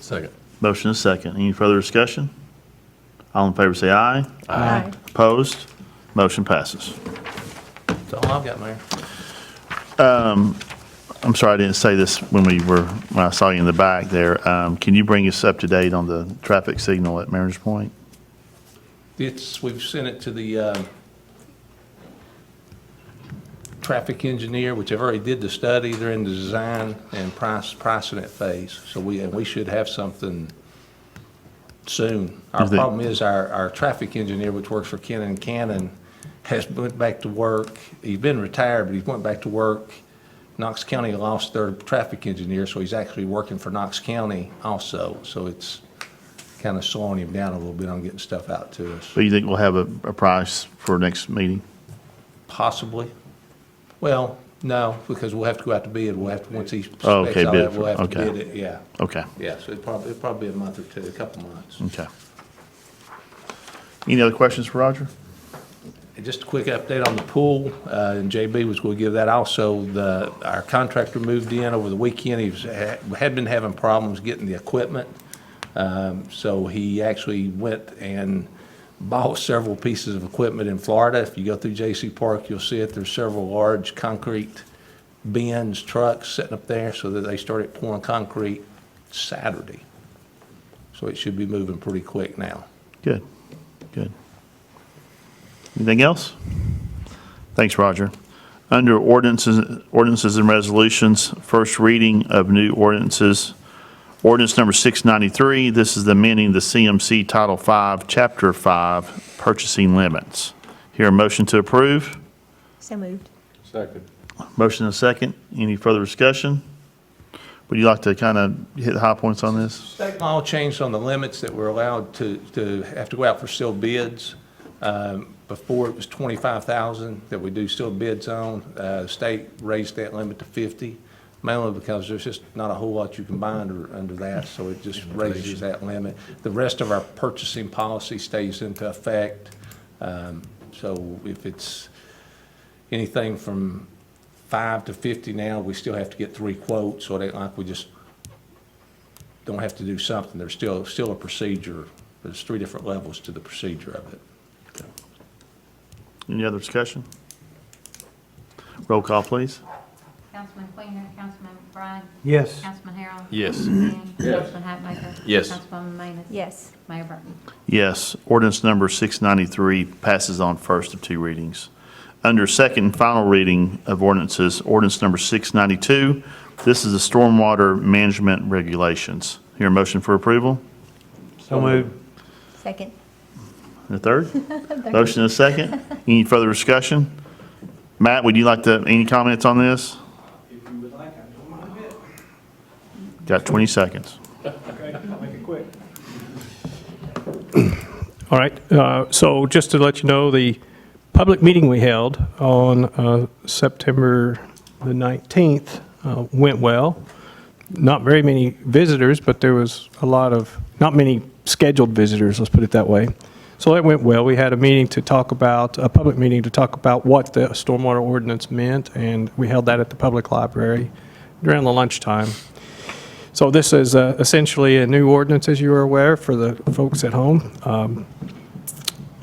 Second. Motion is second. Any further discussion? All in favor say aye. Aye. Opposed? Motion passes. That's all I've got, Mayor. I'm sorry, I didn't say this when we were, when I saw you in the back there. Um, Can you bring us up to date on the traffic signal at Mariners Point? It's, we've sent it to the um, traffic engineer, which they've already did the study. They're in the design and price, pricing it phase. So we, and we should have something soon. Our Is it- problem is our, our traffic engineer, which works for Cannon Cannon, has went back to work. He's been retired, but he went back to work. Knox County lost their traffic engineer, so he's actually working for Knox County also. So it's kind of slowing him down a little bit on getting stuff out to us. Do you think we'll have a, a price for next meeting? Possibly. Well, no, because we'll have to go out to bid. We'll have to, once he specs Oh, all okay, bid that, for- we'll have to okay. Oh. bid it, yeah. Okay, Yeah, so it probably, it'll probably be a month or two, a couple months. okay. Any other questions for Roger? And Just a quick update on the pool, uh, and JB was going to give that also. The, our contractor moved in over the weekend. He was, had been having problems getting the equipment. Um, So he actually went and bought several pieces of equipment in Florida. If you go through J.C. Park, you'll see it. There's several large concrete bins, trucks sitting up there, so that they started pouring concrete Saturday. So it should be moving pretty quick now. Good, good. Anything else? Thanks, Roger. Under ordinances, ordinances and resolutions, first reading of new ordinances. Ordinance number 693, this is amending the CMC Title 5, Chapter 5, Purchasing Limits. Here, a motion to approve. So moved. Second. Motion and second. Any further discussion? Would you like to kind of hit the high points on this? State law changed on the limits that were allowed to, to have to go out for sealed bids. Um, Before, it was 25,000 that we do sealed bids on. Uh, the State raised that limit to 50, mainly because there's just not a whole lot you can buy under, under that, so it just raises that limit. The rest of our purchasing policy stays into effect. Um, So if it's anything from five to 50 now, we still have to get three quotes, so it ain't like we just don't have to do something, there's still, still a procedure, there's three different levels to the procedure of it. Any other discussion? Roll call, please. Councilman Quainer, Councilman McBride, Yes. Councilman Harrell. Yes. Manning, Councilman Hatmaker. Yes. Councilwoman Manis. Yes. Mayor Burton. Yes, ordinance number 693 passes on first of two readings. Under second and final reading of ordinances, ordinance number 692, this is the stormwater management regulations. Here, a motion for approval? So moved. Second. And a third? Motion and a second? Any further discussion? Matt, would you like to, any comments on this? If you would like, I don't mind a bit. Got 20 seconds. Okay, I'll make it quick. All right, uh, so just to let you know, the public meeting we held on uh, September the 19th uh, went well. Not very many visitors, but there was a lot of, not many scheduled visitors, let's put it that way. So that went well. We had a meeting to talk about, a public meeting to talk about what the stormwater ordinance meant, and we held that at the public library during the lunchtime. So this is uh, essentially a new ordinance, as you are aware, for the folks at home. Um,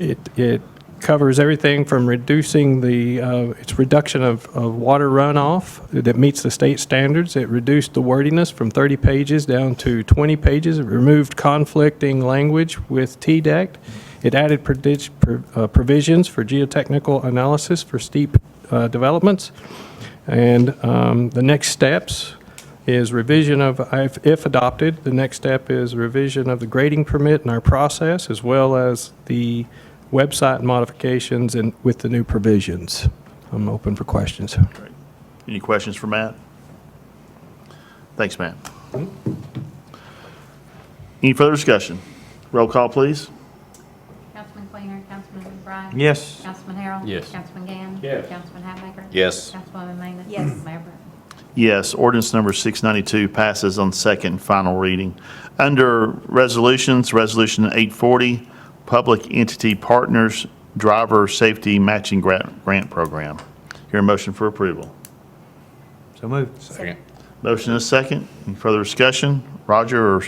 It, it covers everything from reducing the, uh, it's reduction of, of water runoff that meets the state standards. It reduced the wordiness from 30 pages down to 20 pages. It removed conflicting language with TDEC. It added predi- pro- uh, provisions for geotechnical analysis for steep uh, developments. And um, the next steps is revision of, if if adopted, the next step is revision of the grading permit and our process, as well as the website modifications and with the new provisions. I'm open for questions. Any questions for Matt? Thanks, Matt. Any further discussion? Roll call, please. Councilman Quainer, Councilman McBride. Yes. Councilman Harrell. Yes. Councilman Gann. Yes. Councilman Hatmaker. Yes. Councilwoman Manis. Yes. Mayor Burton. Yes, ordinance number 692 passes on second and final reading. Under resolutions, Resolution 840, Public Entity Partners Driver Safety Matching Grant Grant Program. Here, a motion for approval. So moved. Second. Motion is second. Any further discussion? Roger or